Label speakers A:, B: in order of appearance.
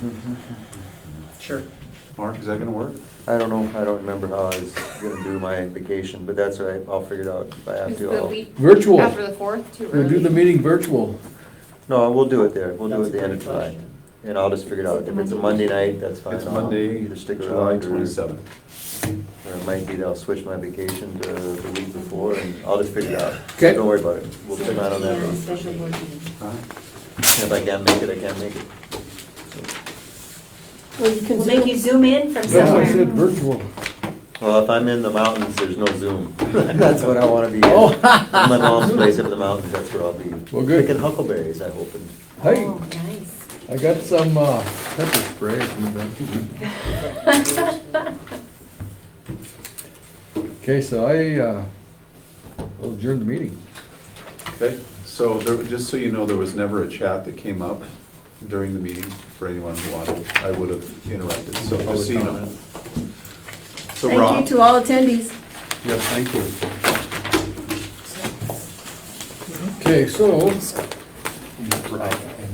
A: Sure.
B: Mark, is that gonna work?
C: I don't know, I don't remember how I was gonna do my vacation, but that's all right, I'll figure it out if I have
D: Is
C: to.
D: the
C: I'll-
D: week
E: Virtual.
D: after the fourth too
E: We'll
D: early?
E: do the meeting virtual.
C: No, we'll do it there, we'll do it
A: That's
C: at the
A: a
C: end of
A: great
C: July,
A: question.
C: and I'll just figure it out, if it's a Monday night, that's fine.
B: It's
C: I'll
B: Monday,
C: either stick
B: July
C: around or-
B: twenty-seventh.
C: Or it might be that I'll switch my vacation to the week before, and I'll just figure it out.
E: Okay.
C: Don't worry about it, we'll plan out on that.
F: Yeah,
C: one.
F: Special board meeting.
C: If I can't make it, I can't make it.
F: Well, you can make you zoom in from
E: That's why I
F: somewhere.
E: said virtual.
C: Well, if I'm in the mountains, there's no Zoom. That's what I wanna be in.
E: Oh.
C: In my mom's place up in the mountains, that's where I'll be.
E: Well, good.
C: Picking huckleberries, I hope. and-
E: Hey,
F: Oh, nice.
E: I got some uh, pepper spray. if you'd like. Okay, so I uh, will adjourn the meeting.
B: Okay, so there, just so you know, there was never a chat that came up during the meeting for anyone who wanted. I would have interrupted, so just so you know. So Rob,
F: Thank you to all attendees.
B: yes, thank you.
E: Okay, so
B: Rob.